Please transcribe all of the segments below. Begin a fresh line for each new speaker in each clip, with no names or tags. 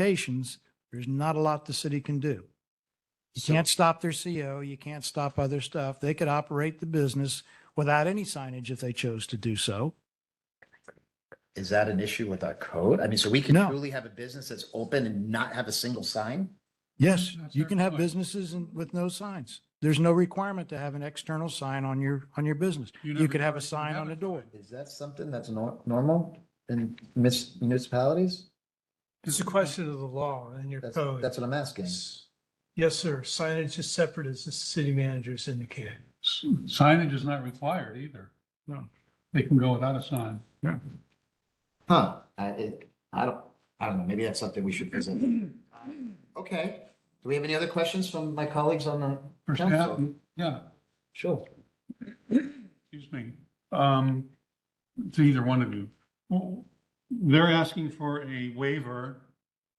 applications, there's not a lot the city can do. You can't stop their CO, you can't stop other stuff. They could operate the business without any signage if they chose to do so.
Is that an issue with our code? I mean, so we can
No.
truly have a business that's open and not have a single sign?
Yes,
That's
you
our
can have
point.
businesses and with no signs. There's no requirement to have an external sign on your, on your business.
You're
You
not
could have a
required to
sign
have
on
a
a door.
Is that something that's nor- normal in mis- municipalities?
It's a question of the law and your
That's,
code.
that's what I'm asking.
Yes, sir. Signage is separate as the city manager's indicated.
Signage is not required either.
No.
They can go without a sign.
Huh, I, it, I don't, I don't know, maybe that's something we should visit. Okay, do we have any other questions from my colleagues on the
For staff,
council?
yeah,
Sure.
excuse me. Um, to either one of you. Well, They're asking for a waiver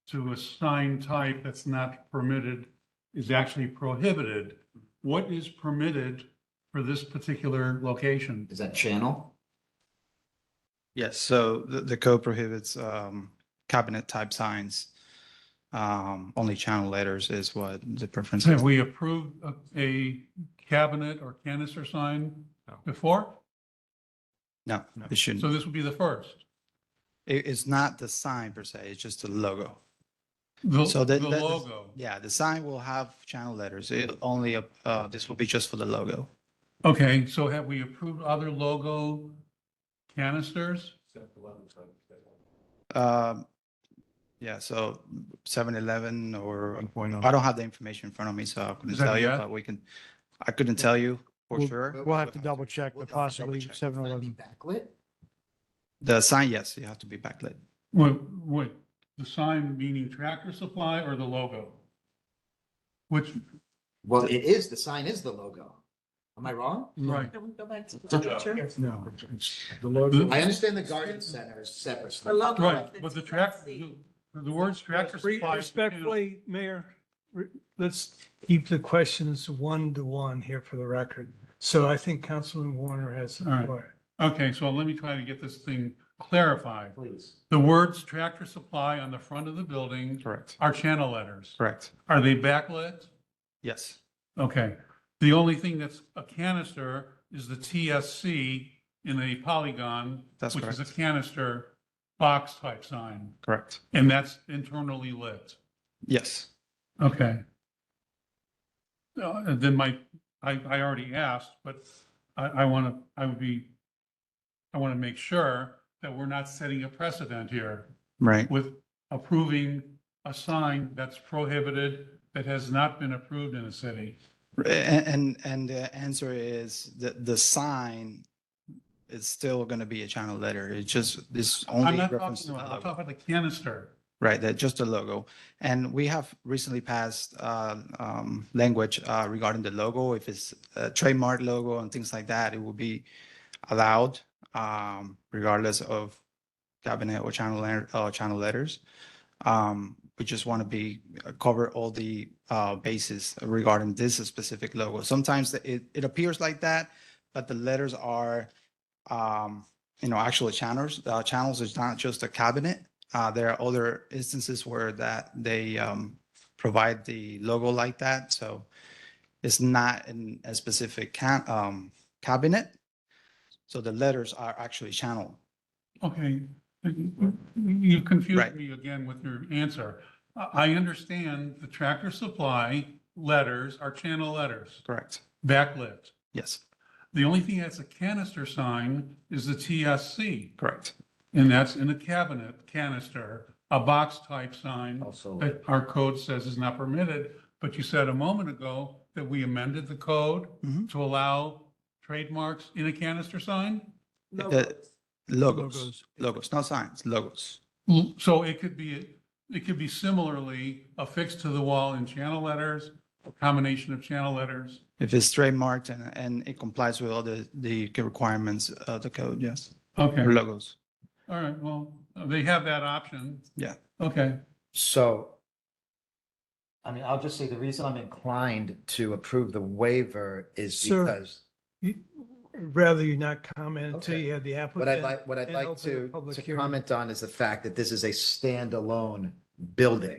to a sign type that's not permitted, is actually prohibited. What is permitted for this particular location?
Is that channel?
Yes, so the, the code prohibits, um, cabinet type signs. Um, only channel letters is what the preference is.
Have we approved a- a cabinet or canister sign before?
No, it shouldn't.
So this would be the first.
It, it's not the sign per se, it's just the logo.
The,
So
the
that- that-
logo.
Yeah, the sign will have channel letters. It only, uh, uh, this will be just for the logo.
Okay, so have we approved other logo canisters?
Um, yeah, so seven eleven or, I don't have the information in front of me, so I couldn't
Is that
tell you,
yet?
but we can, I couldn't tell you for
We'll-
sure.
We'll have to double check, but possibly seven
Might be
eleven.
Backlit?
The sign, yes, you have to be backlit.
What, what, the sign meaning Tractor Supply or the logo? Which,
Well, it is, the sign is the logo. Am I wrong?
right,
Can we go back to the picture?
No.
I understand the garden center is separate.
I love the
right,
fact that
but the
you
track,
see-
the the words Tractor
Re-
Supply.
Respectfully, Mayor, re- let's keep the questions one to one here for the record. So I think Councilman Warner has
All
the
right.
floor.
Okay, so let me try to get this thing clarified.
Please.
The words Tractor Supply on the front of the building
Correct.
are channel letters.
Correct.
Are they backlit?
Yes.
Okay, the only thing that's a canister is the TSC in a polygon.
That's
Which is a
correct.
canister box type sign,
Correct.
and that's internally lit.
Yes.
Okay. Uh, and Then my, I, I already asked, but I, I want to, I would be, I want to make sure that we're not setting a precedent here
Right.
with approving a sign that's prohibited, that has not been approved in a city.
A- And, and the answer is that the sign is still going to be a channel letter. It just, this
I'm
only
not
reference uh, to
talking
the
about, I'm
logo.
talking about the canister.
Right, that just the logo. And we have recently passed uh, um, language uh, regarding the logo. If it's a trademark logo and things like that, it will be allowed um, regardless of cabinet or channel, letter- uh, channel letters. Um, We just want to be, cover all the uh, bases regarding this specific logo. Sometimes it, it appears like that, but the letters are, um, you know, actual channels, uh, channels is not just a cabinet. Uh, there are other instances where that they um, provide the logo like that, so it's not in a specific ca- um, cabinet. So the letters are actually channeled.
Okay, you confused
Right.
me again with your answer. I, I understand the Tractor Supply letters are channel letters,
Correct.
backlit.
Yes,
The only thing that's a canister sign is the TSC,
correct.
and that's in a cabinet canister, a box type sign
Also.
that our code says is not permitted. But you said a moment ago that we amended the code
Mhm.
to allow trademarks in a canister sign?
No,
The- Logos,
Logos.
logos, not signs, logos.
So it could be, it could be similarly affixed to the wall in channel letters, a combination of channel letters.
If it's trademarked and, and it complies with all the, the requirements of the code, yes,
Okay,
or logos.
all right, well, they have that option.
Yeah.
Okay,
So. I mean, I'll just say the reason I'm inclined to approve the waiver is
Sir.
because,
You- Rather you not comment until
Okay.
you have the
what I'd
applicant.
like, what I'd
and
like
open the
to,
public
to
hearing.
comment on is the fact that this is a standalone building.